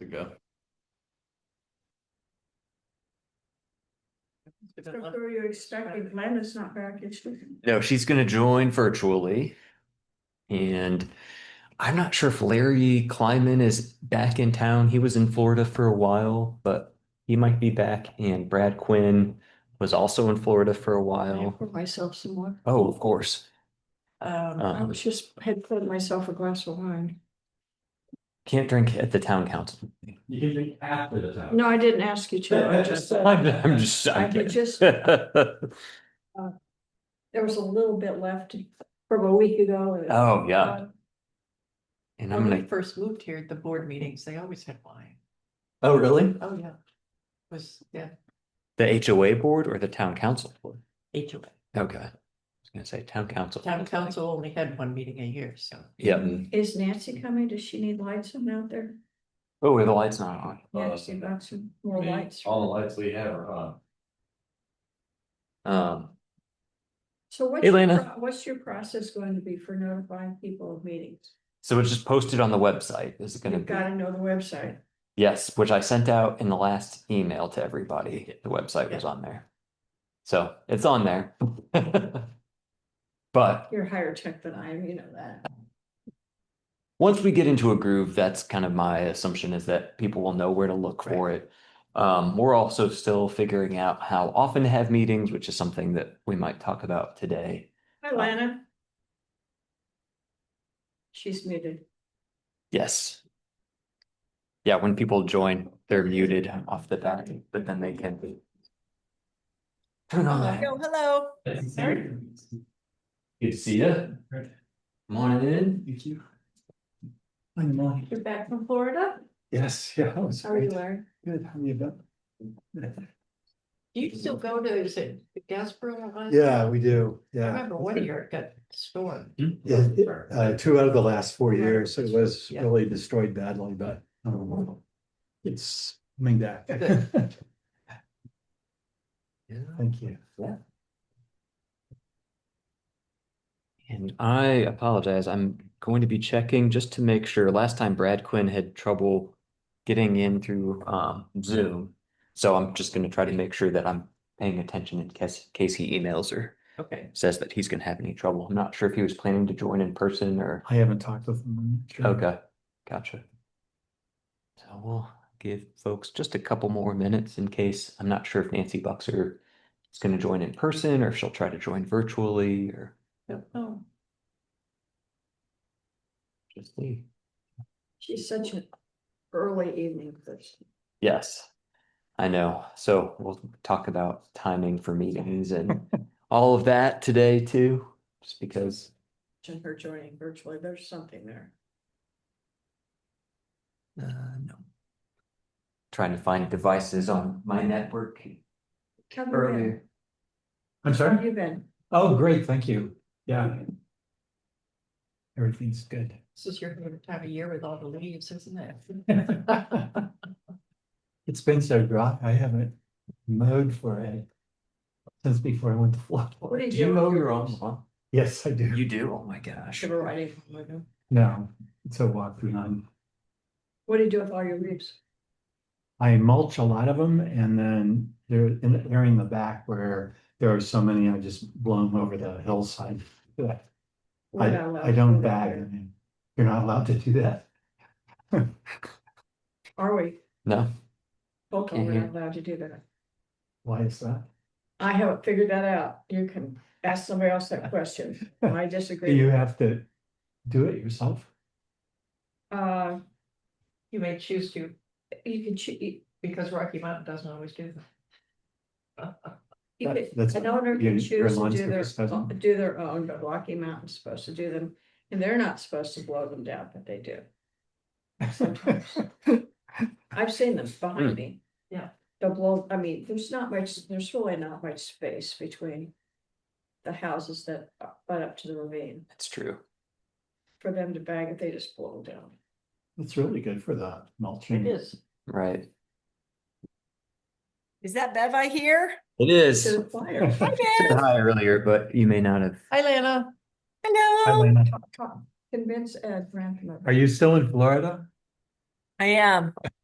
to go. So who are you expecting? Glenda's not back, is she? No, she's gonna join virtually. And I'm not sure if Larry Kleiman is back in town. He was in Florida for a while, but he might be back. And Brad Quinn was also in Florida for a while. Pour myself some more. Oh, of course. Um, I Uh-huh. was just had poured myself a glass of wine. Can't drink at the town council. You can drink after the time. No, I didn't ask you to. I just, I'm, I'm just, I I could just, can't. there was a little bit left from a week ago. uh, Oh, yeah. And I'm When we gonna, first moved here, the board meetings, they always had wine. oh, really? Oh, yeah. Was, yeah, The HOA board or the town council board? HOA. Okay. I was gonna say town council. Town council only had one meeting a year, so. Yep. Is Nancy coming? Does she need lights on out there? Oh, the light's not on. Nancy, about some more lights. All Uh, the lights we have are on. Um, So what's, your Elena. pro- what's your process going to be for notifying people of meetings? so it's just posted on the website. Is it gonna You've be? got to know the website. Yes, which I sent out in the last email to everybody. The website was on there. So it's on there. But You're higher tech than I am, you know that. once we get into a groove, that's kind of my assumption is that people will know where to look for it. Um, we're also still figuring out how often to have meetings, which is something that we might talk about today. Hi, Lana. She's muted. Yes. Yeah, when people join, they're muted off the bat, but then they can. Turn on Uh, that. Oh, hello. Good to see you. Morning in. Thank you. You're back from Florida? Yes, yeah. that was How are you, great. Larry? Good, how you been? Do you still go to, is it the Gasbro? one? Yeah, we do, I yeah. remember one year it got stolen. Yeah, it- uh, two out of the last four Yeah. years, it was Yeah. really destroyed badly, but um, it's coming back. Good. Thank you. And I apologize, I'm going to be checking just to make sure. Last time Brad Quinn had trouble getting in through um Zoom. So I'm just gonna try to make sure that I'm paying attention in case case he emails or Okay. says that he's gonna have any trouble. I'm not sure if he was planning to join in person or. I haven't talked with them. Okay, gotcha. So we'll give folks just a couple more minutes in case, I'm not sure if Nancy Buxer is gonna join in person or if she'll try to join virtually or Oh, just see. She's such an early evening person. Yes, I know. So we'll talk about timing for meetings and all of that today too, just because, And her joining virtually, there's something there. uh, no. Trying to find devices on my network How you been? earlier. I'm How sorry? you been? Oh, great, thank you. Yeah. Everything's good. this is your favorite time of year with all the leaves, isn't it? It's been so dry, I haven't mowed for it since before I went to Florida. did Do you mow your own lawn? Yes, I do. You do? Oh my gosh. Should we write it? Oh my God. No, it's a walk behind. What do you do with all your leaves? I mulch a lot of them and then they're in the area in the back where there are so many, I just blow them over the hillside. I, We're not allowed I to don't do that bag here. them. You're not allowed to do that. Are we? No? Okay, Can't we're hear. not allowed to do that. Why is that? I haven't figured that out. You can ask somebody else that question. I Do disagree. you have to do it yourself? Uh, You may choose to, you can, choo- you because Rocky Mountain doesn't always do that. you That- could- that's- an owner can your- your choose to lawn do their, service doesn't- do their own, but Rocky Mountain's supposed to do them. And they're not supposed to blow them down, but they do. Sometimes. I've seen them Hmm. behind me. Yeah. They'll blow, I mean, there's not much, there's really not much space between the houses that uh, butt up to the ravine That's true. for them to bag it. They just blow them down. It's really good for the mulching. Hmm. It is. Right. Is that Bev I hear? It To is. the fire. Hi Bev. Hi earlier, but you may not have. Hi, Lana. Hi, Hello. Lena. Talk- talk- Convince Ed Rantham. Are you still in Florida? I am.